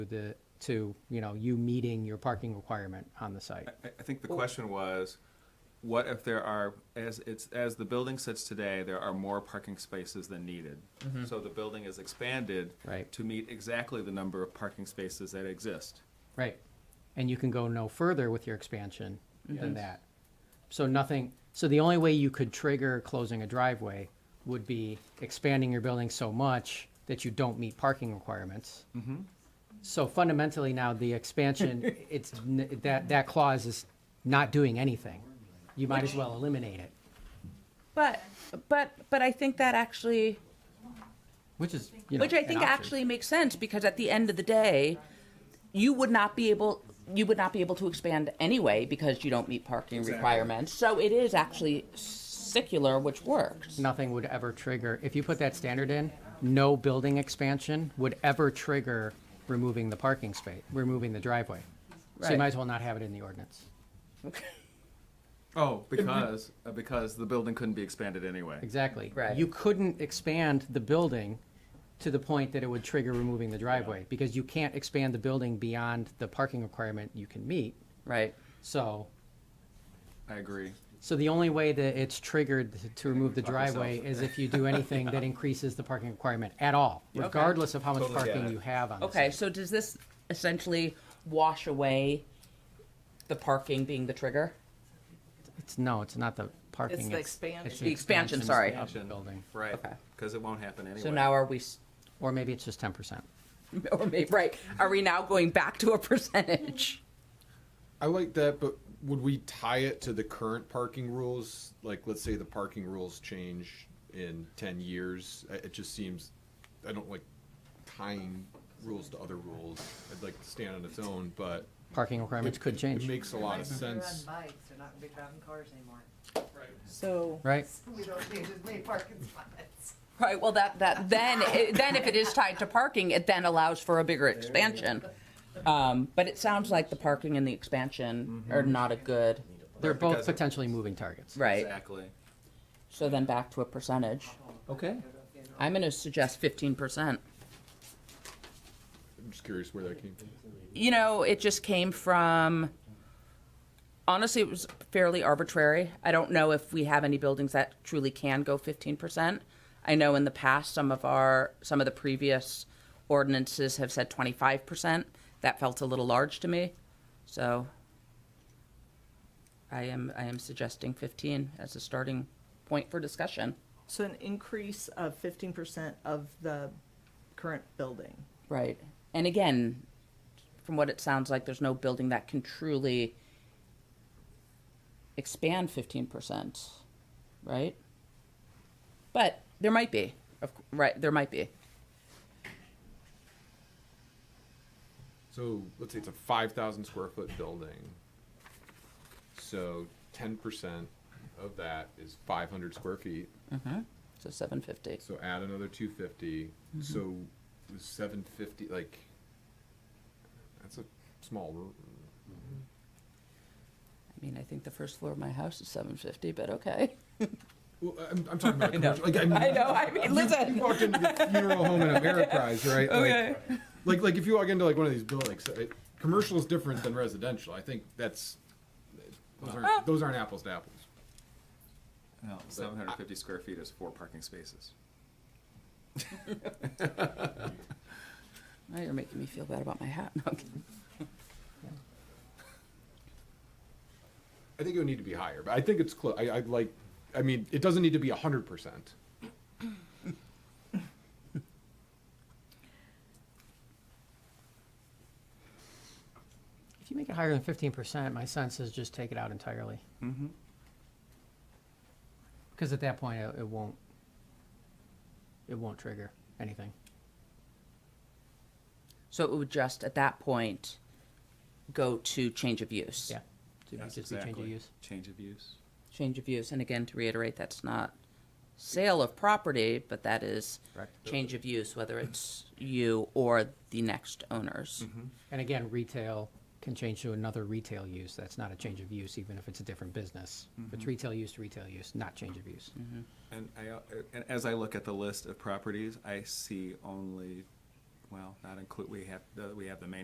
the, to, you know, you meeting your parking requirement on the site. I, I think the question was, what if there are, as it's, as the building sits today, there are more parking spaces than needed? So the building is expanded. Mm-hmm. Right. To meet exactly the number of parking spaces that exist. Right. And you can go no further with your expansion than that. So nothing, so the only way you could trigger closing a driveway would be expanding your building so much that you don't meet parking requirements. So fundamentally now, the expansion, it's, n- that, that clause is not doing anything. You might as well eliminate it, But, but, but I think that actually, which is, you know. which I an think option. actually makes sense because at the end of the day, you would not be able, you would not be able to expand anyway because you don't meet parking requirements. So it is actually secular, which works. nothing would ever trigger, if you put that standard in, no building expansion would ever trigger removing the parking space, removing the driveway. So you Right. might as well not have it in the ordinance. Oh, because, uh, because the building couldn't be expanded anyway. Exactly. Right. You couldn't expand the building to the point that it would trigger removing the driveway, because you can't expand the building beyond the parking requirement you can meet. Right. So, I agree. so the only way that it's triggered to remove the Fuck yourself. driveway is if you do anything that increases the parking requirement at all, regardless of how much Totally get parking it. you have on the Okay, site. so does this essentially wash away the parking being the trigger? It's, no, it's not the parking. the expansion. it's The expansion, sorry. Of the building. Right, Okay. because it won't happen anyway. So now are we, s- Or maybe it's just ten percent. or maybe, right, are we now going back to a percentage? I like that, but would we tie it to the current parking rules? Like, let's say the parking rules change in ten years. I- It just seems, I don't like tying rules to other rules. I'd like to stand on its own, but Parking requirements could it change, makes a lot of sense. They're on bikes, they're not gonna be driving cars anymore. So. right? We don't need as many parking spots. Right, well, that, that, then, it- then if it is tied to parking, it then allows for a bigger expansion. Um, but it sounds like the parking and the expansion are not a good, They're both because it- potentially moving targets. right, Exactly. so then back to a percentage. Okay. I'm gonna suggest fifteen percent. I'm just curious where that came from. You know, it just came from, honestly, it was fairly arbitrary. I don't know if we have any buildings that truly can go fifteen percent. I know in the past, some of our, some of the previous ordinances have said twenty-five percent. That felt a little large to me, so I am, I am suggesting fifteen as a starting point for discussion. So an increase of fifteen percent of the current building. Right. And again, from what it sounds like, there's no building that can truly expand 15%, right? But there might be. Of, cou- right, there might be. So let's say it's a five thousand square foot building. So ten percent of that is five hundred square feet. So 750. So add another two So seven fifty, like that's a small. r- I mean, I think the first floor of my house is 750, but okay. Well, I'm, I'm talking about commercial. Like, I, mean, I know. I mean, You, listen. you walked into the funeral home in Ameriprise, right? Okay. Like, like, like if you walk into like one of these buildings, uh, commercial is different than residential. I think that's those aren't, those aren't apples to apples. No, seven hundred and fifty square feet is four parking spaces. Now you're making me feel bad about my hat. No, I'm kidding. I think it would need to be higher, but I think it's close. I, I like. I mean, it doesn't need to be hundred percent. If you make it higher than fifteen percent, my sense is just take it out entirely. Mm-hmm. Because at that point, it, it won't, it won't trigger anything. So it would just, at that point, go to change of use. Yeah. So it'd Yes, just be change of exactly. use. Change of use. change of use, and again, to reiterate, that's not sale of property, but that is Correct. change of use, whether it's you or the next owners. And again, retail can change to another retail use. That's not a change of use, even if it's a different business. If Mm-hmm. It's retail use to retail use, not change of use. And I, uh, and as I look at the list of properties, I see only well, not include, we have, the- we have the main